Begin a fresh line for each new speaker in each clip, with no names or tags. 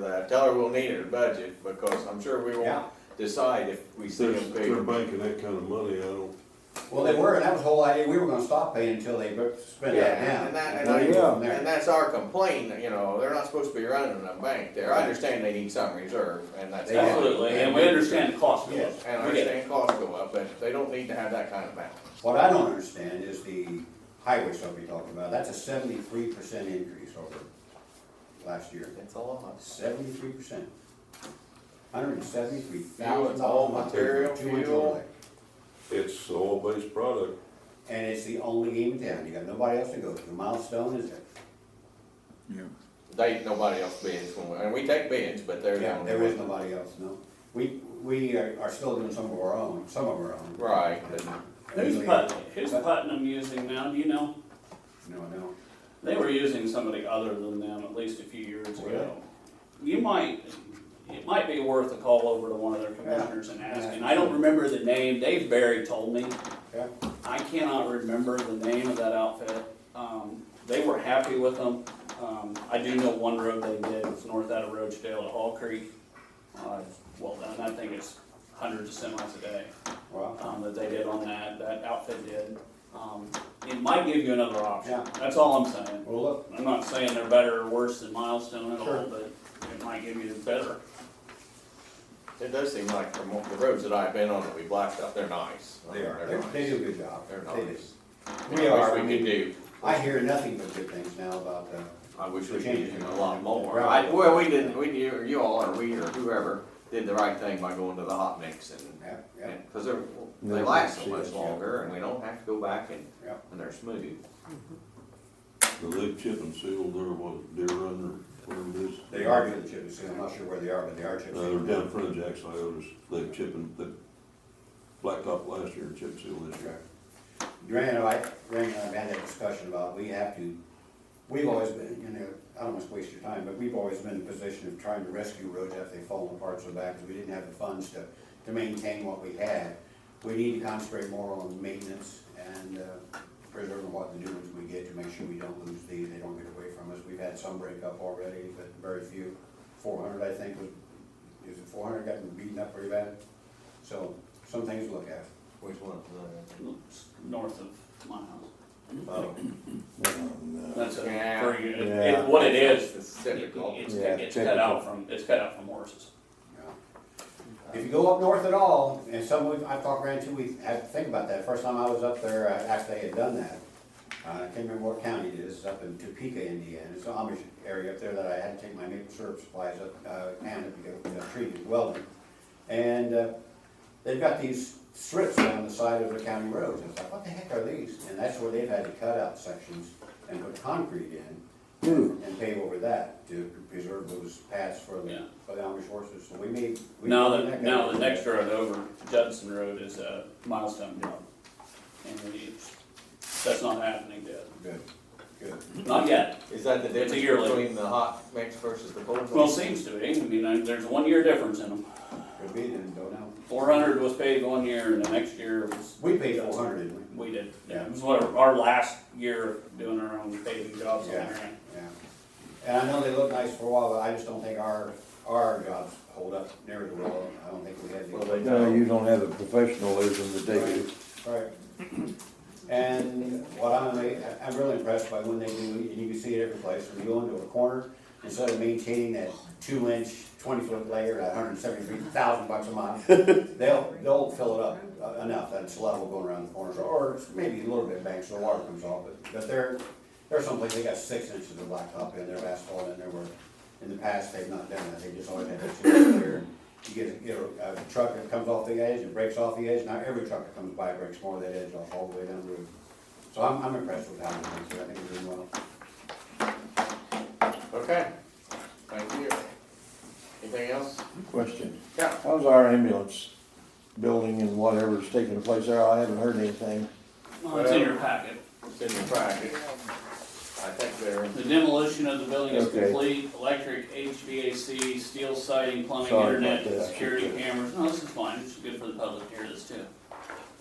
that. Tell her we'll need her budget, because I'm sure we
Yeah.
won't decide if we see
They're,
them pay.
they're banking that kind of money, I don't,
Well, they were, and that was the whole idea, we were gonna stop paying until they bu- spent
Yeah,
that down.
and that, and
We'll
I,
go from there.
and that's our complaint, you know, they're not supposed to be running a bank there. I understand they need some reserve, and that's.
They do.
fine.
Absolutely, and we understand the cost of
Yes.
it.
And I
We get it.
understand costs go up, but they don't need to have that kind of balance.
What I don't understand is the highway stuff we talked about, that's a seventy-three percent increase over last year.
It's a lot.
Seventy-three percent. Hundred and seventy-three
Fuel,
thousand
it's all
dollars.
material, fuel.
it's the oil-based product.
And it's the only game in town, you got nobody else to go to, Milestone is there.
They, nobody else bids when, we- and we take bids, but they're. the
Yeah,
only
there is
one.
nobody else, no. We, we are are still doing some of our own, some of our own.
Right.
Who's Putnam, who's Putnam using now, do you know?
No, no.
They were using somebody other than them at least a few years ago. You might, it might be worth a call over to one of their commissioners and ask, and I don't remember the name, Dave Barry told me.
Yeah.
I cannot remember the name of that outfit, um, they were happy with them. Um, I do know one road they did, it's north out of Roachdale to Hall Creek. Uh, well done, that thing is hundreds of semis a day
Well,
um, that they did on that, that outfit did. Um, it might give you another option.
Yeah.
That's all I'm saying.
well, look,
I'm not saying they're better or worse than Milestone at
Sure.
all, but it might give you the better.
It does seem like from the roads that I've been on that we blacked up, they're nice.
they are,
They're
They- they
nice.
do a good job.
They're
They do.
nice.
We
I wish
are, I
We could
mean,
do,
I hear nothing but good things now about the,
I wish we could do a lot more.
Right.
I, well, we did, we, you you all, or we, or whoever, did the right thing by going to the hot mix and,
yeah, yeah,
and, cause they're, they
Yeah,
last so
she
much
is,
yeah.
longer, and we don't have to go back and,
yeah.
and they're smooth.
The lead chip and seal, they're what, Deer Run or whatever it is.
They are doing the chip and seal, I'm not sure where they are, but they are chip
Uh, they're
and
down in
seal.
front of Jack's Iota's, they chip and, they blacktop last year and chip seal this year.
Duran and I, Duran and I have had that discussion about, we have to, we've always been, you know, I don't want to waste your time, but we've always been in the position of trying to rescue roads after they've fallen apart so bad, because we didn't have the funds to, to maintain what we had. We need to concentrate more on maintenance and uh, preserving what the new ones we get to make sure we don't lose these, they don't get away from us. We've had some break up already, but very few. Four hundred, I think, was, is it four hundred, gotten beaten up pretty bad? So, some things to look at.
Which one? is
It's north of my house.
Oh,
That's a,
Yeah.
for you, it-
Yeah.
it- what it is,
It's
it-
typical.
it's,
Yeah,
it's cut
typical.
out from, it's cut out from horses.
yeah. If you go up north at all, and some, we've- I've talked around too, we had to think about that, first time I was up there, uh, after they had done that, uh, I can't remember what county it is, it's up in Topeka, Indiana, it's an Amish area up there that I had to take my maple syrup supplies up, uh, and if you go, you know, treated welding. And, uh, they've got these strips down the side of the county roads, and I was like, what the heck are these? And that's where they've had to cut out sections and put concrete in, and pave over that to preserve those paths for the,
Yeah.
for the Amish horses, so we may. we
Now,
may
the,
not
now
go-
the next road over Judson Road is a Milestone job. And it's, that's not happening yet.
Good, good.
Not yet.
Is that the
It's a
difference
yearly.
between the hot mix versus the cold?
Well,
mix?
seems to be. I mean, I- there's one year difference in them.
Could be, then don't know.
Four hundred was paid one year and the next year was,
We paid four hundred, didn't we?
we did.
Yeah.
It was what, our- our last year of doing our own paving jobs on
Yeah,
there.
yeah. And I know they look nice for a while, but I just don't think our, our jobs hold up near as well, I don't think we had. the-
Well, they
No, you don't have the professionalism that they do.
Right. And what I'm, ama- I'm really impressed by when they do, and you can see it every place, when you go into a corner, instead of maintaining that two inch, twenty foot layer, at hundred and seventy-three thousand bucks a mile, they'll, they'll fill it up uh, enough, that it's level going around the corners, or maybe a little bit banked so the water comes off, but, but there, there's someplace they got six inches of blacktop in there, asphalt in there, where in the past, they've not done that, they just always had that two inch layer. You get, a- get a, a truck that comes off the edge, it breaks off the edge, now every truck that comes by breaks more of that edge off all the way down the road. So I'm, I'm impressed with how they're doing, so I think they're doing well.
Okay, thank you. Anything else?
Question,
Yeah.
how's our ambulance building and whatever's taking place there? I haven't heard anything.
Well, it's in your packet.
It's in the packet. I think they're,
The demolition of the building is
Okay.
complete. Electric, HVAC, steel siding, plumbing,
Sorry about
internet,
that.
security cameras. No, this is fine. It's good for the public to hear this too.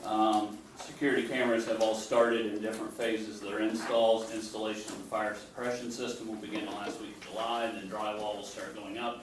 Um, security cameras have all started in different phases of their installs. Installation of the fire suppression system will begin the last week of July, and then drywall will start going up.